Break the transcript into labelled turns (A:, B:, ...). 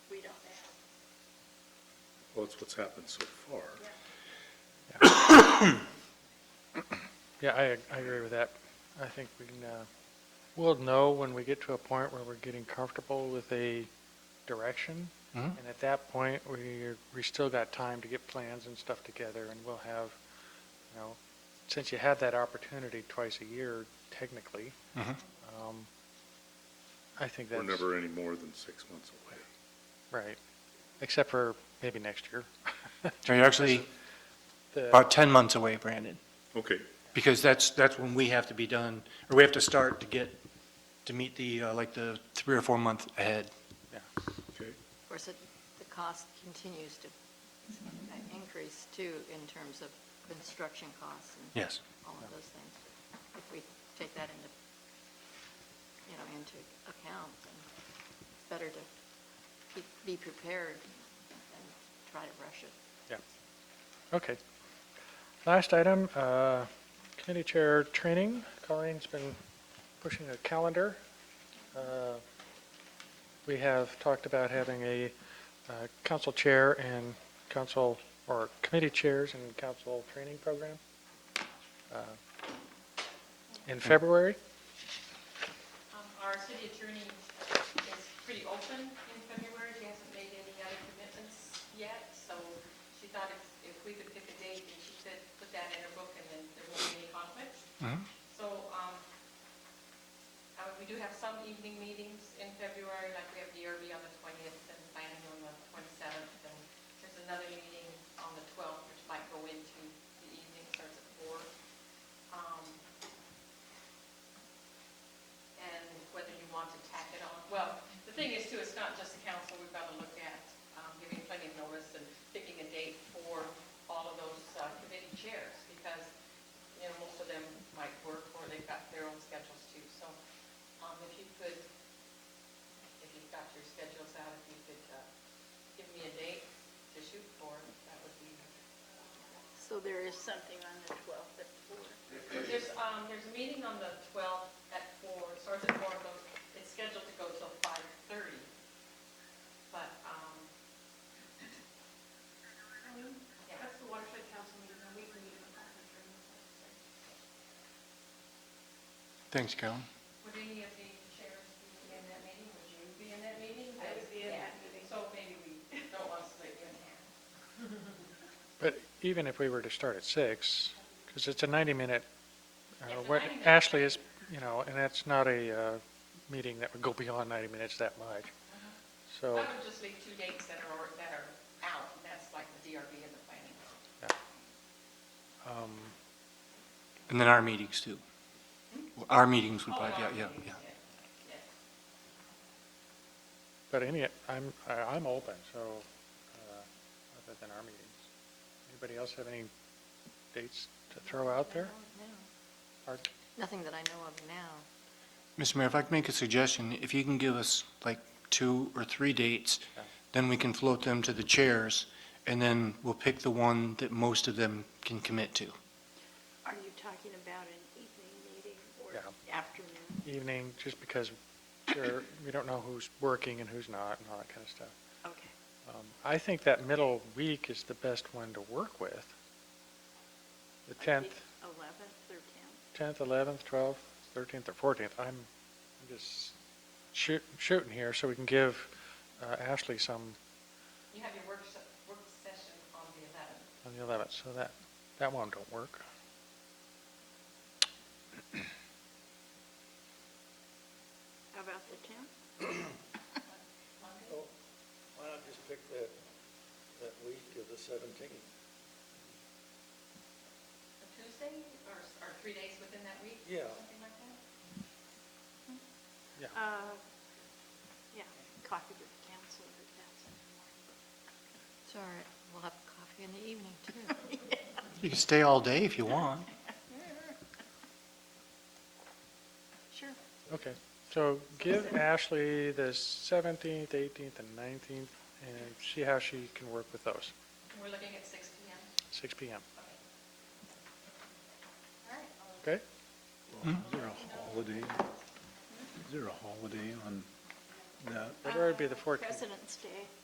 A: Well, that's what's happened so far.
B: Yeah, I, I agree with that. I think we can, uh, we'll know when we get to a point where we're getting comfortable with a direction.
C: Mhm.
B: And at that point, we, we still got time to get plans and stuff together and we'll have, you know, since you have that opportunity twice a year technically,
C: Mhm.
B: um, I think
A: We're
B: that's.
A: never any more than six months away.
B: Right, except for maybe next year.
C: So you're actually
B: The-
C: about 10 months away, Brandon,
A: Okay,
C: because that's, that's when we have to be done, or we have to start to get, to meet the, uh, like, the three or four month ahead.
A: okay.
D: Of course, it- the cost continues to uh, increase too in terms of construction costs and
C: Yes.
D: all of those things. If we take that into, you know, into account, then it's better to be- be prepared than try to rush it.
B: Okay. Last item, uh, committee chair training. Colleen's been pushing a calendar. Uh, We have talked about having a uh, council chair and council, or committee chairs and council training program uh, in February.
E: Um, Our city attorney is pretty open in February. She hasn't made any other commitments yet, so she thought if, if we could pick a date, and she said, put that in her book, and then there won't be any conflict.
C: Mhm.
E: So, um, uh, we do have some evening meetings in February, like we have the ERB on the twentieth and planning on the twenty-seventh, and there's another meeting on the twelfth, which might go into the evening, starts at four. Um, and whether you want to tack it on. Well, the thing is too, it's not just the council, we've got to look at um, giving plenty of notice and picking a date for all of those uh, committee chairs, because, you know, most of them might work or they've got their own schedules too. So um, if you could, if you've got your schedules out, if you could uh, give me a date to shoot for, that would be.
D: So there is something on the 12th at 4.
E: There's, um, there's a meeting on the 12th at 4, starts at 4, but it's scheduled to go till 5:30. But, um,
F: That's the watershed council meeting, a weekly meeting. on watershed training.
C: Thanks, Carolyn.
E: would any of the chairs be in that meeting? Would you be in that meeting?
F: I would be in that
E: Yeah,
F: meeting.
E: So maybe we don't want to split you in half.
B: But even if we were to start at six, because it's a 90-minute,
E: It's a
B: what
E: 90-minute.
B: Ashley is, you know, and that's not a uh, meeting that would go beyond 90 minutes that much.
E: Uh-huh.
B: So,
E: I would just leave two dates that are, that are out, and that's like the DRB and the planning.
B: um,
C: And then our meetings, too. Our meetings would,
E: Oh,
C: probably- yeah,
E: our
C: yeah,
E: meetings,
C: yeah.
E: yeah, yeah.
B: but any, I'm, I- I'm open, so, uh, other than our meetings. Anybody else have any dates to throw out there? Or-
D: Nothing that I know of now.
C: Mr. Mayor, if I could make a suggestion, if you can give us like two or three dates, then we can float them to the chairs, and then we'll pick the one that most of them can commit to.
G: Are you talking about an evening meeting or
B: Yeah.
G: afternoon?
B: Evening, just because sure, we don't know who's working and who's not and all that kind of stuff.
G: Okay.
B: Um, I think that middle week is the best one to work with. The 10th,
G: 11th or 10th?
B: 10th, 11th, 12th, 13th, or 14th. I'm I'm just shoot- shooting here so we can give uh, Ashley some
E: You have your work, se- work session on the 11th.
B: on the 11th, so that, that one don't work.
G: How about the 10th?
H: Why not just pick that, that week of the seventeenth?
E: A Tuesday, or, or three days within that week?
H: Yeah.
E: Something like that?
G: Uh, Yeah, coffee with the council or that's in the morning.
D: It's all right, we'll have coffee in the evening too.
C: You can stay all day if you want.
D: Sure.
B: Okay, so give Ashley the 17th, 18th, and 19th, and see how she can work with those,
E: And We're looking at 6 PM.
B: 6 PM,
E: Okay. All
B: okay?
E: right, I'll
A: Is there a holiday, is there a holiday on that?
B: February would be the 14th.
G: Uh, President's Day.